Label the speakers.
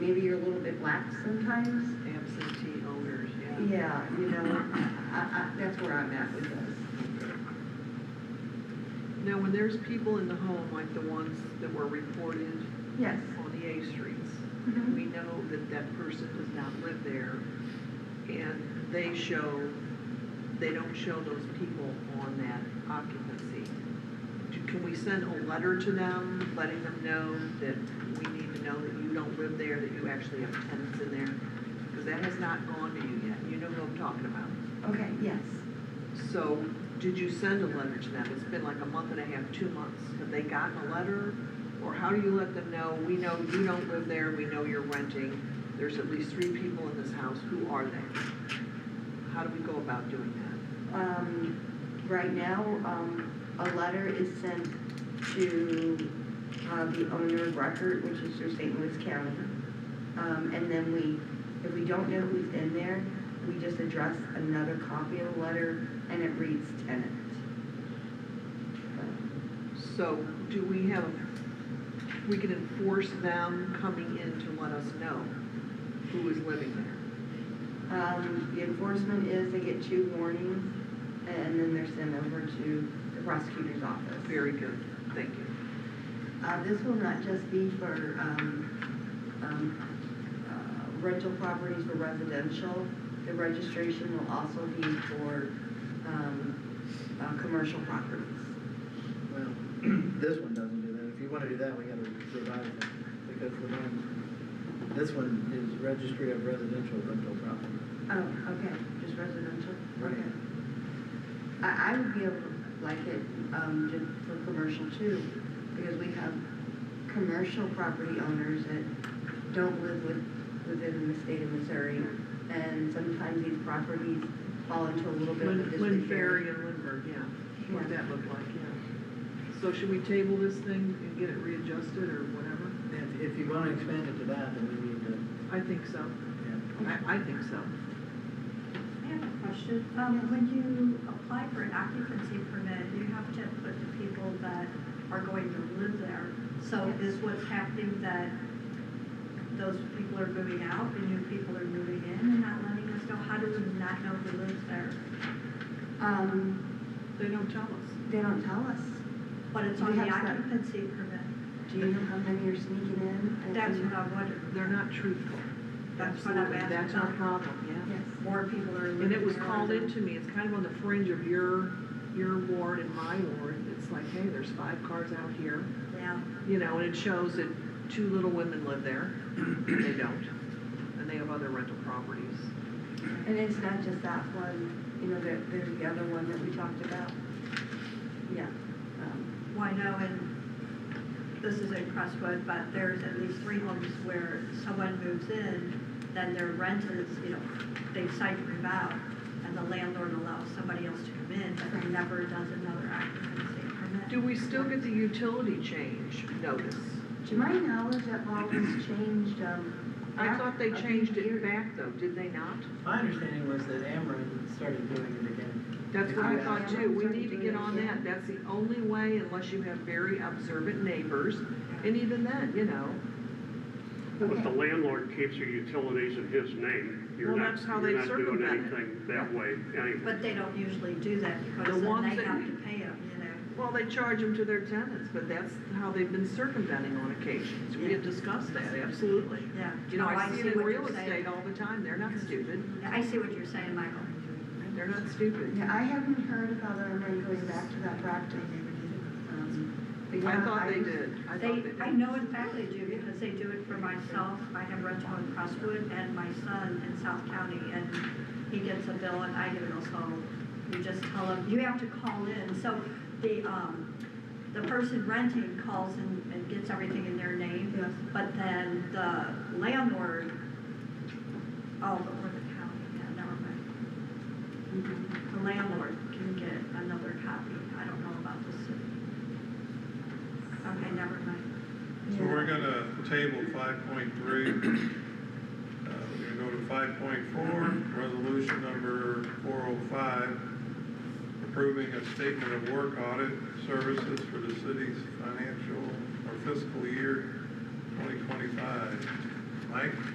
Speaker 1: maybe you're a little bit lax sometimes.
Speaker 2: absentee owners, yeah.
Speaker 1: Yeah, you know, I, I, that's where I'm at with this.
Speaker 2: Now, when there's people in the home, like the ones that were reported
Speaker 1: Yes.
Speaker 2: on the A streets,
Speaker 1: Mhm.
Speaker 2: we know that that person does not live there, and they show, they don't show those people on that occupancy. Do- Can we send a letter to them, letting them know that we need to know that you don't live there, that you actually have tenants in there? Because that has not gone to you yet, you know who I'm talking about.
Speaker 1: Okay, yes.
Speaker 2: So, did you send a letter to them? It's been like a month and a half, two months. Have they gotten a letter? Or how do you let them know, we know you don't live there, we know you're renting, there's at least three people in this house, who are they? How do we go about doing that?
Speaker 1: Um, right now, um, a letter is sent to, uh, the owner of record, which is through St. Louis County. Um, and then we, if we don't know who's in there, we just address another copy of the letter and it reads tenant.
Speaker 2: So, do we have, we can enforce them coming in to let us know who is living there?
Speaker 1: Um, the enforcement is they get two warnings and then they're sent over to the prosecutor's office.
Speaker 2: Very good, thank you.
Speaker 1: Uh, this will not just be for, um, um, uh, rental properties for residential. The registration will also be for, um, uh, commercial properties.
Speaker 3: Well, this one doesn't do that. If you wanna do that, we gotta revise it, because the one, this one is registry of residential rental property.
Speaker 1: Oh, okay, just residential?
Speaker 3: Right.
Speaker 1: Okay. I, I would be able, like it, um, to, for commercial too, because we have commercial property owners that don't live with, within the state of Missouri, and sometimes these properties fall into a little bit of a
Speaker 2: Lynn, Lynn Ferry
Speaker 1: disrepair.
Speaker 2: and Lindbergh, yeah, what
Speaker 1: Yeah.
Speaker 2: that looked like, yeah. So should we table this thing and get it readjusted or whatever?
Speaker 3: If, if you wanna expand it to that, then we need to,
Speaker 2: I think so,
Speaker 3: yeah.
Speaker 2: I, I think so.
Speaker 4: I have a question. Um, when you apply for an occupancy permit, you have to put the people that are going to live there. So is what's happening that those people are moving out and new people are moving in and not letting us know? How do we not know who lives there?
Speaker 1: Um,
Speaker 2: They don't tell us.
Speaker 1: they don't tell us.
Speaker 4: But it's
Speaker 1: We
Speaker 4: on the
Speaker 1: have some.
Speaker 4: occupancy permit.
Speaker 1: Do you know how many are sneaking in? and-
Speaker 4: That's what I wondered.
Speaker 2: They're not truthful.
Speaker 4: That's what I'm
Speaker 2: Absolutely.
Speaker 4: asking
Speaker 2: That's our
Speaker 4: about.
Speaker 2: problem,
Speaker 1: Yes.
Speaker 4: More people are
Speaker 2: yeah.
Speaker 4: living there.
Speaker 2: And it was called
Speaker 4: than-
Speaker 2: into me, it's kind of on the fringe of your, your ward and my ward. It's like, hey, there's five cars out here,
Speaker 4: Yeah.
Speaker 2: you know, and it shows that two little women live there, and they don't. And they have other rental properties.
Speaker 1: And it's not just that one, you know, there, there's the other one that we talked about. Yeah. um,
Speaker 4: Why no, and this is in Crestwood, but there's at least three homes where someone moves in, then their rent is, you know, they decide to move out, and the landlord allows somebody else to come in, but they never does another occupancy permit.
Speaker 2: Do we still get the utility change notice?
Speaker 1: To my knowledge, that law was changed, um.
Speaker 2: I
Speaker 1: back
Speaker 2: thought they
Speaker 1: a few
Speaker 2: changed it
Speaker 1: years-
Speaker 2: back though, did they not?
Speaker 3: My understanding was that Ameren started doing it again.
Speaker 2: That's what I thought too, we need to get on
Speaker 1: Yeah.
Speaker 2: that, that's the only way unless you have very observant neighbors, and even then, you know.
Speaker 5: But the
Speaker 1: Okay.
Speaker 5: landlord keeps your utilities in his name. You're
Speaker 2: Well,
Speaker 5: not,
Speaker 2: that's how
Speaker 5: you're
Speaker 2: they
Speaker 5: not doing
Speaker 2: circumvent it.
Speaker 5: anything that way anyway.
Speaker 4: But they don't usually do that,
Speaker 2: The
Speaker 4: because then
Speaker 2: ones
Speaker 4: they
Speaker 2: that-
Speaker 4: have to pay them, you know.
Speaker 2: Well, they charge them to their tenants, but that's how they've been circumventing on occasions, we had discussed that, absolutely.
Speaker 4: Yeah.
Speaker 2: You know,
Speaker 4: No,
Speaker 2: I see it in
Speaker 4: what
Speaker 2: real
Speaker 4: you're saying.
Speaker 2: estate all the time, they're not stupid,
Speaker 4: I see what you're saying, Michael.
Speaker 2: they're not stupid.
Speaker 1: Yeah, I haven't heard about Irma going back to that practice. Um, but
Speaker 2: I
Speaker 1: yeah,
Speaker 2: thought they
Speaker 1: was-
Speaker 2: did, I thought they
Speaker 4: They, I
Speaker 2: did.
Speaker 4: know in fact they do, because they do it for myself, I have rental in Crestwood, and my son in South County, and he gets a bill and I get it also. You just tell him, you have to call in, so the, um, the person renting calls and, and gets everything in their name.
Speaker 1: Yes.
Speaker 4: But then the landlord, oh, but we're the county, yeah, never mind.
Speaker 1: Mm-hmm.
Speaker 4: The landlord can get another copy, I don't know about the city. Okay, never mind.
Speaker 6: So we're gonna table five point three. We're gonna go to five point four, resolution number four oh five, approving a statement of work audit services for the city's financial or fiscal year twenty twenty-five. Mike?